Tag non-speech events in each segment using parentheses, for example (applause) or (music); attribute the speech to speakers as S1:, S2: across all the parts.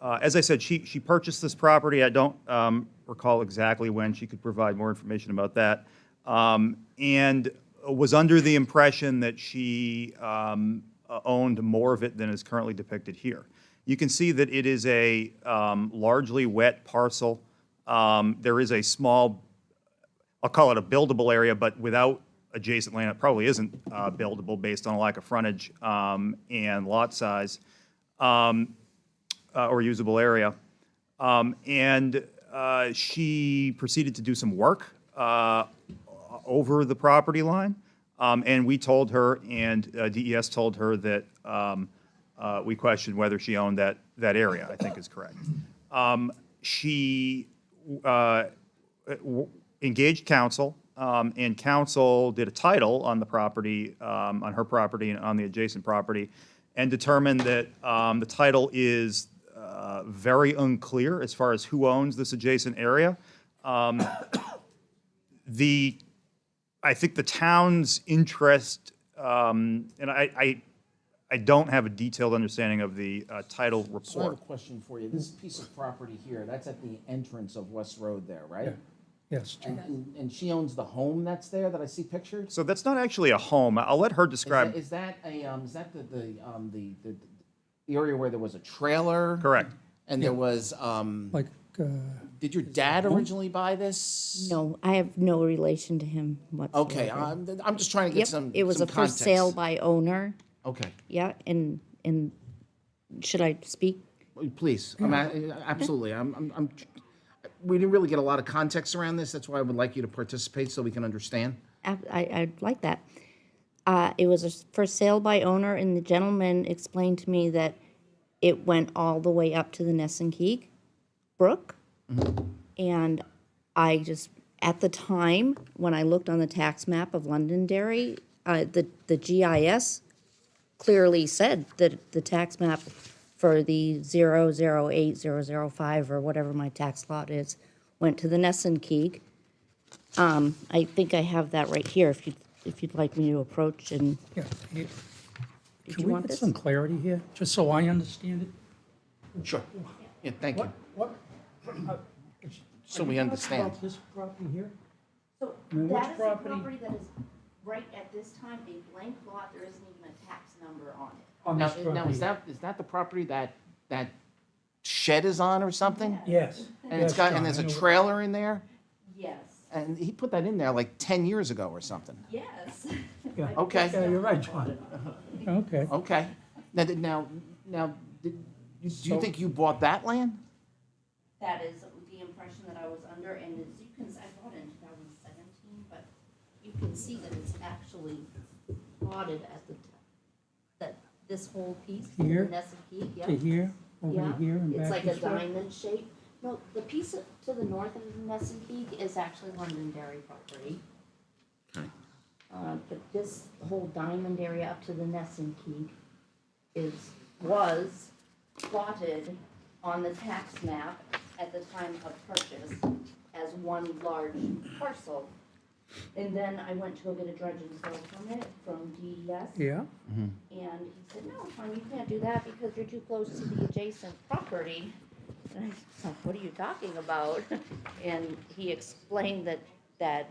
S1: Uh, As I said, she, she purchased this property. I don't um, recall exactly when. She could provide more information about that. Um, And was under the impression that she um, uh, owned more of it than is currently depicted here. You can see that it is a um, largely wet parcel. Um, There is a small I'll call it a buildable area, but without adjacent land, it probably isn't uh, buildable based on a lack of frontage um, and lot size um, uh, or usable area. Um, And uh, she proceeded to do some work uh, over the property line. Um, And we told her, and uh, DES told her that um, uh, we questioned whether she owned that, that area, I think is correct. Um, She uh, w- engaged counsel, um, and counsel did a title on the property, um, on her property and on the adjacent property, and determined that um, the title is uh, very unclear as far as who owns this adjacent area. Um, The, I think the town's interest, um, and I, I, I don't have a detailed understanding of the uh, title
S2: So I have a
S1: report.
S2: question for you. This piece of property here, that's at the entrance of West Road there, right?
S3: Yes,
S2: And, and- and she owns the home that's there that I see pictured? Is
S1: So that's not actually a home. I'll let her
S2: that-
S1: describe,
S2: Is that a, um, is that the, the, um, the, the the area where there was a trailer?
S1: correct.
S2: And there was, um,
S3: like, uh,
S2: did your dad originally buy this?
S4: No, I have no relation to him whatsoever.
S2: Okay, I'm, I'm just trying to
S4: Yep,
S2: get some,
S4: it was
S2: some
S4: a for
S2: context.
S4: sale by owner,
S2: Okay,
S4: yeah, and, and should I speak?
S2: please, I'm, a- absolutely, I'm, I'm, I'm, we didn't really get a lot of context around this, that's why I would like you to participate so we can understand.
S4: I, I- I'd like that. Uh, it was a s- for sale by owner, and the gentleman explained to me that it went all the way up to the Nessunkeek Brook. And I just, at the time, when I looked on the tax map of Londonderry, uh, the, the GIS clearly said that the tax map for the zero zero eight zero zero five or whatever my tax lot is went to the Nessunkeek. Um, I think I have that right here, if you, if you'd like me to approach and,
S3: yeah. you-
S4: did
S3: Can
S4: you
S3: we
S4: want
S3: get
S4: this?
S3: some clarity here, just so I understand it?
S2: Sure, yeah, thank you.
S3: what? uh,
S2: So we understand.
S3: This property here?
S4: So
S3: mean, which
S4: that is the
S3: property-
S4: property that is right at this time a blank lot, there isn't even a tax number on it.
S3: On
S2: Now,
S3: this
S2: now,
S3: property.
S2: is that, is that the property that, that shed is on or something?
S3: Yes.
S2: And it's
S3: yes,
S2: got,
S3: John,
S2: and there's
S3: I
S2: a
S3: know.
S2: trailer in there,
S4: Yes,
S2: and he put that in there like ten years ago or something.
S4: yes. (laughs)
S3: Yeah. Yeah,
S2: Okay,
S3: you're right, John. Okay,
S2: okay. Now, did- now, now, did- you- do you think you bought that land?
S4: That is the impression that I was under, and as you can, I bought it in 2017, but you can see that it's actually plotted at the, t- that this whole piece, the
S3: Here?
S4: Nessun Peak, yeah.
S3: to here,
S4: Yeah,
S3: over here, and back
S4: it's like a
S3: this way.
S4: diamond shape. No, the piece of- to the north of Nessun Peak is actually Londonderry property. Uh, but this whole diamond area up to the Nessun Peak is, was plotted on the tax map at the time of purchase as one large parcel. And then I went to go get a dredge and fill permit from E DES.
S3: Yeah,
S4: And he said, no, Tom, you can't do that because you're too close to the adjacent property. And I said, what are you talking about? (laughs) And he explained that, that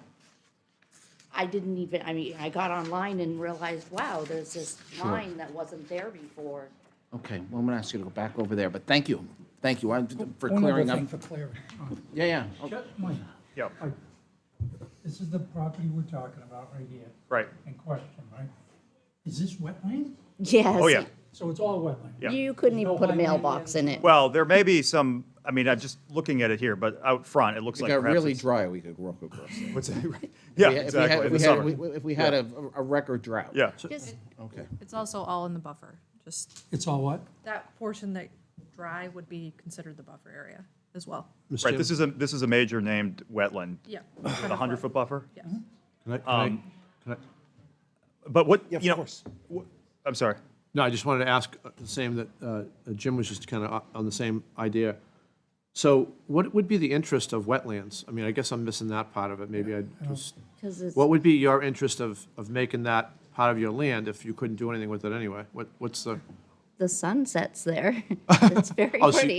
S4: I didn't even, I mean, I got online and realized, wow, there's this line that wasn't there before.
S2: Okay, well, I'm gonna ask you to go back over there, but thank you, thank you I- for
S3: one other
S2: clearing up.
S3: thing for clarity. John.
S2: Yeah, yeah, okay.
S3: Shut my-
S1: Yep,
S3: I- This is the property we're talking about right here,
S1: right.
S3: in question, right? Is this wetland?
S4: Yes.
S1: Oh, yeah.
S3: So it's all wetland?
S1: Yeah.
S4: You couldn't even
S3: No
S4: put a
S3: line line
S4: mailbox in
S3: in.
S4: it.
S1: Well, there may be some, I mean, I'm just looking at it here, but out front, it looks
S2: It
S1: like
S2: got
S1: perhaps
S2: really
S1: it's-
S2: dry, we could walk across. it.
S1: what's that? Yeah,
S2: If we had- if we had-
S1: exactly, in the
S2: if we had-
S1: summer.
S2: we- If we had a, a record drought.
S1: Yeah,
S4: Just,
S2: Okay.
S5: It's also all in the buffer, just
S3: It's all what?
S5: that portion that dry would be considered the buffer area as well.
S1: right, this is a, this is a major named wetland.
S5: Yeah.
S1: With a hundred-foot buffer?
S5: Yes.
S6: Can I, can I,
S1: um,
S6: can I,
S1: But what,
S2: Yeah, of
S1: you know,
S2: course.
S1: wh- I'm sorry.
S6: no, I just wanted to ask uh, the same that uh, Jim was just kind of on the same idea. So what would be the interest of wetlands? I mean, I guess I'm missing that part of it, maybe I just,
S4: because it's,
S6: what would be your interest of, of making that part of your land if you couldn't do anything with it anyway? What, what's the?
S1: (laughs)
S4: the sun sets there. It's very
S6: Oh, so you-
S4: pretty.